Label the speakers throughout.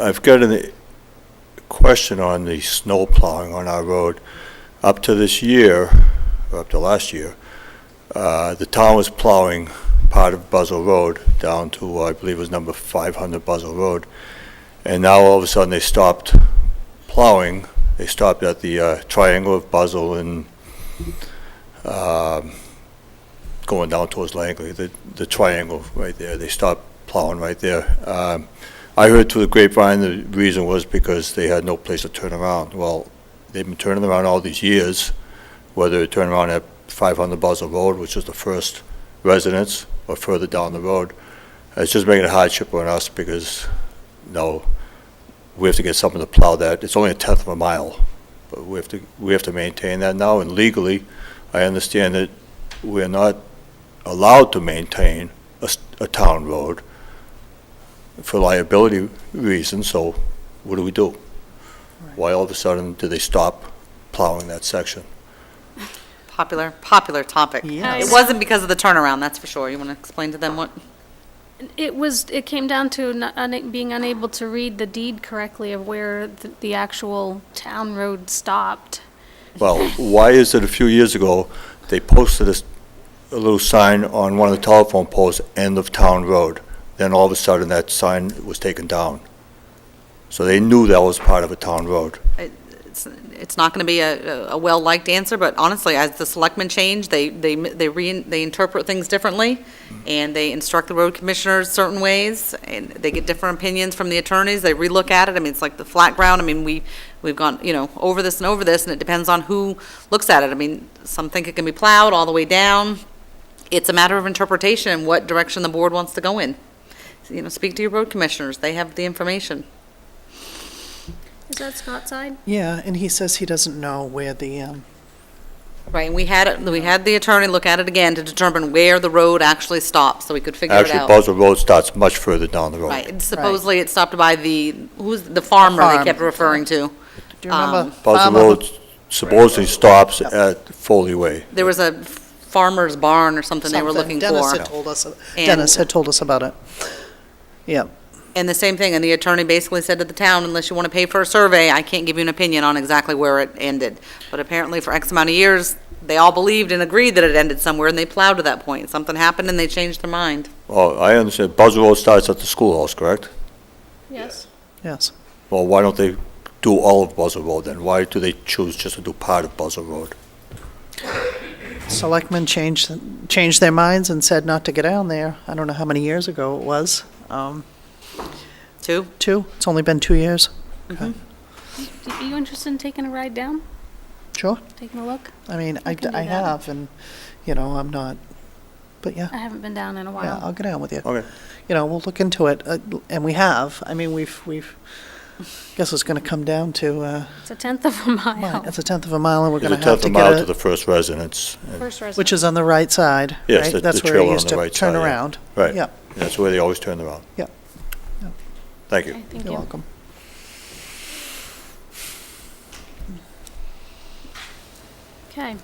Speaker 1: I've got a question on the snow plowing on our road. Up to this year, or up to last year, uh, the town was plowing part of Buzzell Road down to, I believe it was number 500 Buzzell Road. And now all of a sudden, they stopped plowing. They stopped at the uh, triangle of Buzzell and um, going down towards Langley, the the triangle right there. They stopped plowing right there. Um, I heard through the grapevine, the reason was because they had no place to turn around. Well, they've been turning around all these years, whether they turn around at 500 Buzzell Road, which is the first residence, or further down the road. It's just making a hardship on us because, no, we have to get something to plow that. It's only a tenth of a mile, but we have to, we have to maintain that now. And legally, I understand that we're not allowed to maintain a, s- a town road for liability reasons, so what do we do? Why all of a sudden do they stop plowing that section?
Speaker 2: Popular, popular topic.
Speaker 3: Yeah.
Speaker 2: It wasn't because of the turnaround, that's for sure. You want to explain to them what?
Speaker 3: It was, it came down to not- una- being unable to read the deed correctly of where th- the actual town road stopped.
Speaker 1: Well, why is it a few years ago, they posted a, s- a little sign on one of the telephone poles, end of town road? Then all of a sudden, that sign was taken down. So they knew that was part of a town road.
Speaker 2: It's it's not going to be a a well-liked answer, but honestly, as the selectmen change, they they they re- they interpret things differently, and they instruct the road commissioners certain ways, and they get different opinions from the attorneys, they relook at it. I mean, it's like the flat ground, I mean, we, we've gone, you know, over this and over this, and it depends on who looks at it. I mean, some think it can be plowed all the way down. It's a matter of interpretation, and what direction the board wants to go in. You know, speak to your road commissioners, they have the information.
Speaker 3: Is that Scott's side?
Speaker 4: Yeah, and he says he doesn't know where the, um,
Speaker 2: Right, and we had, it- we had the attorney look at it again to determine where the road actually stops, so we could figure it
Speaker 1: Actually,
Speaker 2: out.
Speaker 1: Buzzell Road starts much further down the road.
Speaker 2: Right, and supposedly it stopped by the, who's, the farmer they
Speaker 4: Farm.
Speaker 2: kept referring to.
Speaker 4: do you remember?
Speaker 2: Um,
Speaker 1: Buzzell
Speaker 4: Farmer
Speaker 1: Road supposedly stops at Foley Way.
Speaker 2: There was a farmer's barn or something they were looking
Speaker 4: something. Dennis
Speaker 2: for.
Speaker 4: had told us, uh,
Speaker 2: And-
Speaker 4: Dennis had told us about it. Yeah,
Speaker 2: And the same thing, and the attorney basically said to the town, unless you want to pay for a survey, I can't give you an opinion on exactly where it ended. But apparently for X amount of years, they all believed and agreed that it ended somewhere, and they plowed to that point. Something happened and they changed their mind.
Speaker 1: Oh, I understand, Buzzell Road starts at the schoolhouse, correct?
Speaker 3: Yes.
Speaker 4: yes.
Speaker 1: Well, why don't they do all of Buzzell Road then? Why do they choose just to do part of Buzzell Road?
Speaker 4: Selectmen changed, changed their minds and said not to go down there. I don't know how many years ago it was. Um,
Speaker 2: Two?
Speaker 4: two, it's only been two years.
Speaker 3: Are you interested in taking a ride down,
Speaker 4: Sure,
Speaker 3: taking a look?
Speaker 4: I mean, I,
Speaker 3: We can do
Speaker 4: I
Speaker 3: that.
Speaker 4: have, and, you know, I'm not, but yeah,
Speaker 3: I haven't been down in a
Speaker 4: yeah, I'll
Speaker 3: while.
Speaker 4: get down with you.
Speaker 1: Okay.
Speaker 4: You know, we'll look into it, uh, and we have. I mean, we've, we've, guess it's gonna come down to, uh,
Speaker 3: It's a tenth of a
Speaker 4: Right,
Speaker 3: mile.
Speaker 4: it's a tenth of a mile, and we're
Speaker 1: It's a
Speaker 4: gonna have
Speaker 1: tenth
Speaker 4: to
Speaker 1: of a mile to
Speaker 4: get
Speaker 1: the
Speaker 4: it,
Speaker 1: first residence, and-
Speaker 3: First resident.
Speaker 4: which is on the right side, right?
Speaker 1: Yes, the- the
Speaker 4: That's where
Speaker 1: trail
Speaker 4: it
Speaker 1: on
Speaker 4: used
Speaker 1: the
Speaker 4: to
Speaker 1: right
Speaker 4: turn
Speaker 1: side, yeah.
Speaker 4: around.
Speaker 1: right.
Speaker 4: Yeah,
Speaker 1: That's where they always turn around.
Speaker 4: Yeah. Yeah.
Speaker 1: Thank you.
Speaker 3: Okay, thank
Speaker 4: you're
Speaker 3: you.
Speaker 4: welcome.
Speaker 3: Okay.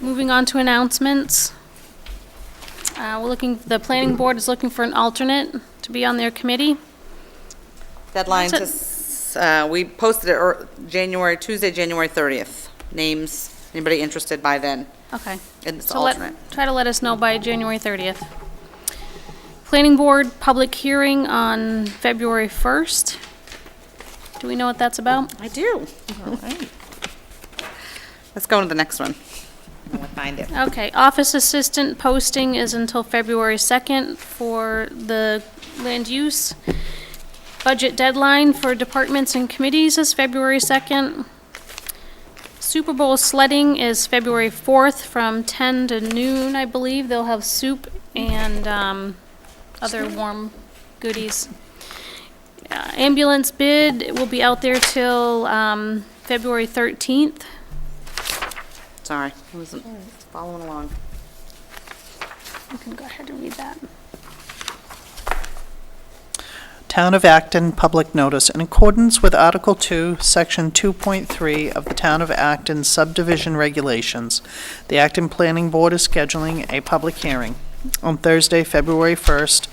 Speaker 3: Moving on to announcements. Uh, We're looking, the planning board is looking for an alternate to be on their committee.
Speaker 2: Deadline to,
Speaker 3: That's
Speaker 2: uh, we posted it ear- January, Tuesday, January 30th. Names, anybody interested by then?
Speaker 3: Okay.
Speaker 2: And it's
Speaker 3: So let-
Speaker 2: alternate.
Speaker 3: Try to let us know by January 30th. Planning Board, public hearing on February 1st. Do we know what that's about?
Speaker 2: I do. Let's go on to the next one. I'm gonna Find it.
Speaker 3: Okay, office assistant posting is until February 2nd for the land use. Budget deadline for departments and committees is February 2nd. Super Bowl sledding is February 4th from 10 to noon, I believe. They'll have soup and um, other warm goodies. Uh, Ambulance bid will be out there till um, February 13th.
Speaker 2: Sorry, I wasn't following along.
Speaker 3: You can go ahead and read that.
Speaker 4: Town of Acton Public Notice. In accordance with Article 2, Section 2.3 of the Town of Acton subdivision regulations, the Acton Planning Board is scheduling a public hearing on Thursday, February 1st,